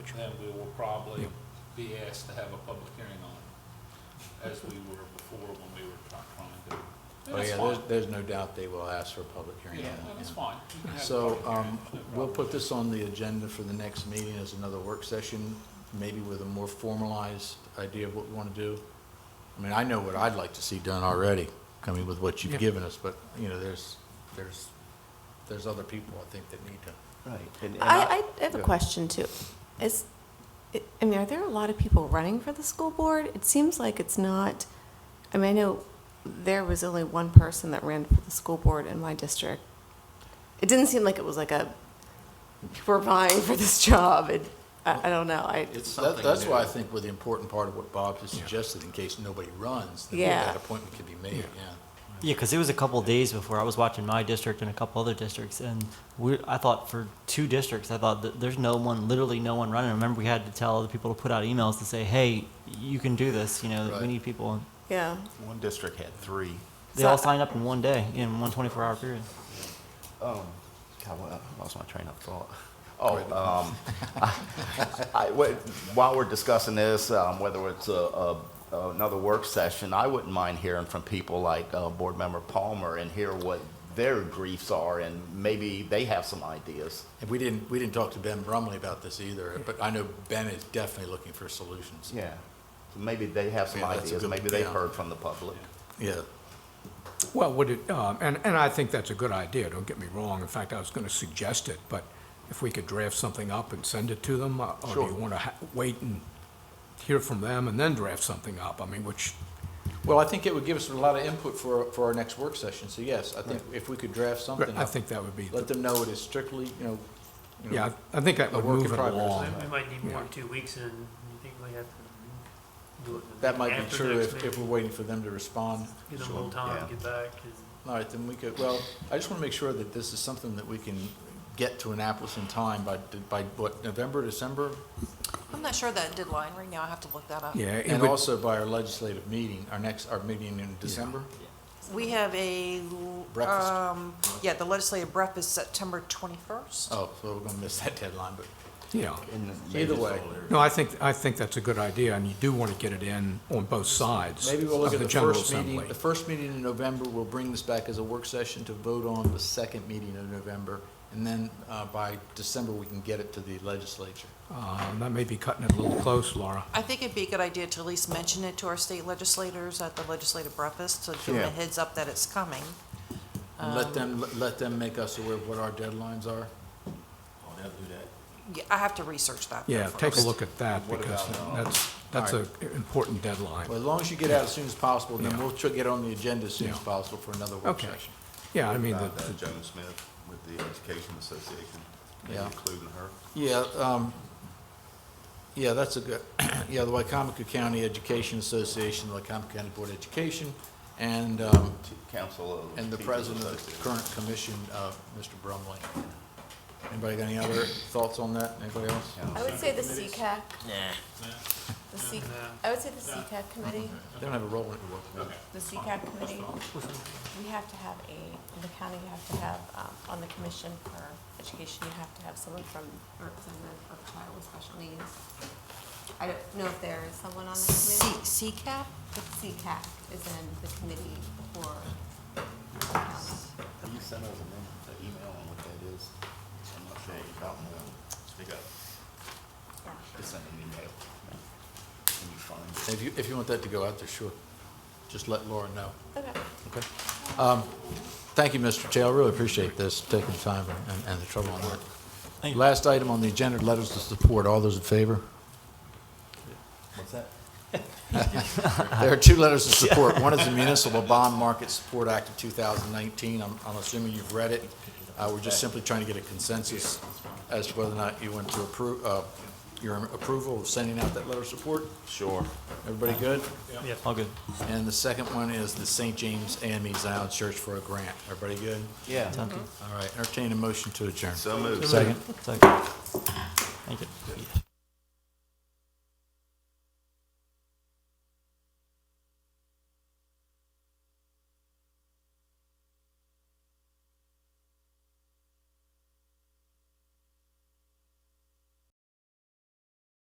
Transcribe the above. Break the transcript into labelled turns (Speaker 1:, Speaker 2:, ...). Speaker 1: then we will probably be asked to have a public hearing on it, as we were before when we were try- trying to. And
Speaker 2: Oh,
Speaker 1: that's
Speaker 2: yeah,
Speaker 1: fine.
Speaker 2: there's, there's no doubt they will ask for a public hearing.
Speaker 1: Yeah,
Speaker 2: on
Speaker 1: no,
Speaker 2: that,
Speaker 1: that's
Speaker 2: yeah.
Speaker 1: fine. You can have a
Speaker 2: So,
Speaker 1: public hearing,
Speaker 2: um,
Speaker 1: no
Speaker 2: we'll
Speaker 1: problem.
Speaker 2: put this on the agenda for the next meeting as another work session, maybe with a more formalized idea of what we want to do. I mean, I know what I'd like to see done already, coming with what you've given us, but, you know, there's, there's, there's other people, I think, that need to.
Speaker 3: Right. and- and
Speaker 4: I, I have a
Speaker 3: yeah.
Speaker 4: question too. Is, I- I mean, are there a lot of people running for the school board? It seems like it's not, I mean, I know there was only one person that ran for the school board in my district. It didn't seem like it was like a, people were vying for this job, and I, I don't know, I,
Speaker 2: That- That's why I think with the important part of what Bob has suggested, in case nobody runs, then
Speaker 4: Yeah.
Speaker 2: that appointment could be made, yeah.
Speaker 5: Yeah, because it was a couple days before I was watching my district and a couple other districts, and we, I thought for two districts, I thought that there's no one, literally no one running. I remember we had to tell other people to put out emails to say, "Hey, you can do this. You know,
Speaker 2: Right.
Speaker 5: we need people." And
Speaker 4: yeah.
Speaker 6: One district had three.
Speaker 5: they
Speaker 4: So-
Speaker 5: all signed up in one day in one 24-hour period.
Speaker 3: Um, God, well, I lost my train of thought. Oh, um, I, wait, while we're discussing this, um, whether it's a, a, another work session, I wouldn't mind hearing from people like uh, Board Member Palmer and hear what their griefs are, and maybe they have some ideas.
Speaker 2: And we didn't, we didn't talk to Ben Brumley about this either, but I know Ben is definitely looking for solutions.
Speaker 3: Yeah. So maybe they have some
Speaker 2: Yeah, that's a
Speaker 3: ideas.
Speaker 2: good-
Speaker 3: Maybe they've
Speaker 2: yeah.
Speaker 3: heard from the public.
Speaker 2: Yeah.
Speaker 7: Well, would it, um, and, and I think that's a good idea, don't get me wrong. In fact, I was going to suggest it, but if we could draft something up and send it to them, uh, or do
Speaker 2: Sure.
Speaker 7: you want to wait and hear from them and then draft something up? I mean, which,
Speaker 2: Well, I think it would give us a lot of input for, for our next work session, so yes, I think if we could draft something
Speaker 7: I
Speaker 2: up,
Speaker 7: think that would be,
Speaker 2: let them know it is strictly, you know, you know,
Speaker 7: yeah, I think that
Speaker 2: a
Speaker 7: would
Speaker 2: work
Speaker 7: move
Speaker 2: in
Speaker 7: it
Speaker 2: progress.
Speaker 7: along.
Speaker 2: Right.
Speaker 8: We might need more
Speaker 7: Yeah.
Speaker 8: than two weeks, and you think we have to do it. the
Speaker 2: That might be
Speaker 8: after
Speaker 2: true
Speaker 8: next
Speaker 2: if, if
Speaker 8: meeting?
Speaker 2: we're waiting for them to respond.
Speaker 8: Give them a little time
Speaker 3: yeah.
Speaker 8: to get back, and
Speaker 2: All right, then we could, well, I just want to make sure that this is something that we can get to Annapolis in time by, by what, November, December?
Speaker 9: I'm not sure that deadline right now. I have to look that up.
Speaker 7: Yeah, it
Speaker 2: And
Speaker 7: would-
Speaker 2: also by our legislative meeting, our next, our meeting in December?
Speaker 9: We have a, l-
Speaker 2: Breakfast.
Speaker 9: um, yeah, the legislative breakfast September 21st.
Speaker 2: Oh, so we're going to miss that deadline, but
Speaker 7: yeah.
Speaker 3: And
Speaker 2: either
Speaker 3: maybe-
Speaker 2: way.
Speaker 7: No, I think, I think that's a good idea, and you do want to get it in on both sides
Speaker 2: Maybe we'll look
Speaker 7: of
Speaker 2: at
Speaker 7: the
Speaker 2: the
Speaker 7: General
Speaker 2: first meeting,
Speaker 7: Assembly.
Speaker 2: the first meeting in November, we'll bring this back as a work session to vote on the second meeting of November, and then uh, by December, we can get it to the legislature.
Speaker 7: Um, That may be cutting it a little close, Laura.
Speaker 9: I think it'd be a good idea to at least mention it to our state legislators at the legislative breakfast, to give them
Speaker 3: Yeah.
Speaker 9: a heads up that it's coming.
Speaker 2: And let them, let them make us aware of what our deadlines are.
Speaker 9: Yeah, I have to research that. though
Speaker 7: Yeah, take a
Speaker 9: first.
Speaker 7: look at that, because
Speaker 2: uh,
Speaker 7: that's, that's an important deadline.
Speaker 2: Well, as long as you get out as soon as possible, then
Speaker 7: Yeah.
Speaker 2: we'll tr- get on the agenda as soon as
Speaker 7: Yeah.
Speaker 2: possible for another work
Speaker 7: Okay.
Speaker 2: session.
Speaker 7: Yeah, I mean, the-
Speaker 6: Found
Speaker 7: the-
Speaker 6: that Joan Smith with the Education Association, maybe
Speaker 2: Yeah.
Speaker 6: including her.
Speaker 2: Yeah, um, yeah, that's a good, yeah, the Wycomico County Education Association, the Wycomico County Board of Education, and, um,
Speaker 6: T- Council of.
Speaker 2: And the
Speaker 6: Teachers
Speaker 2: president of the
Speaker 6: Association.
Speaker 2: current commission, uh, Mr. Brumley. Anybody got any other thoughts on that? Anybody else?
Speaker 4: I would say the CCAC. Nah. The C,
Speaker 8: Nah.
Speaker 4: I would say the CCAC committee,
Speaker 3: Mm-hmm.
Speaker 2: They don't have a role in it.
Speaker 4: the CCAC committee, we have to have a, in the county, you have to have, um, on the commission for education, you have to have someone from, a representative of a child with special needs. I don't know if there is someone on the committee.
Speaker 9: C- CCAP?
Speaker 4: The CCAC is in the committee for the county.
Speaker 3: Can you send us an em- an email on what that is? I'm not sure about that.
Speaker 6: Speak up.
Speaker 3: Just send an email. Can you find it?
Speaker 2: If you, if you want that to go out there, sure. Just let Laura know.
Speaker 4: Okay.
Speaker 2: Okay. Um, Thank you, Mr. Taylor. Really appreciate this, taking the time and, and the trouble on that.
Speaker 5: Thank you.
Speaker 2: Last item on the agenda, letters of support. All those in favor?
Speaker 3: What's that?
Speaker 2: There are two letters of support. One is the Municipal Bond Market Support Act of 2019. I'm, I'm assuming you've read it. Uh, we're just simply trying to get a consensus as to whether or not you want to approve, uh, your approval of sending out that letter of support.
Speaker 3: Sure.
Speaker 2: Everybody good?
Speaker 8: Yeah.
Speaker 5: All good.
Speaker 2: And the second one is the St. James AME Zion Church for a grant. Everybody good?
Speaker 3: Yeah.
Speaker 5: Sounds good.
Speaker 2: All right, entertain a motion to adjourn.
Speaker 6: So moved.
Speaker 2: Second.
Speaker 5: It's okay. Thank you.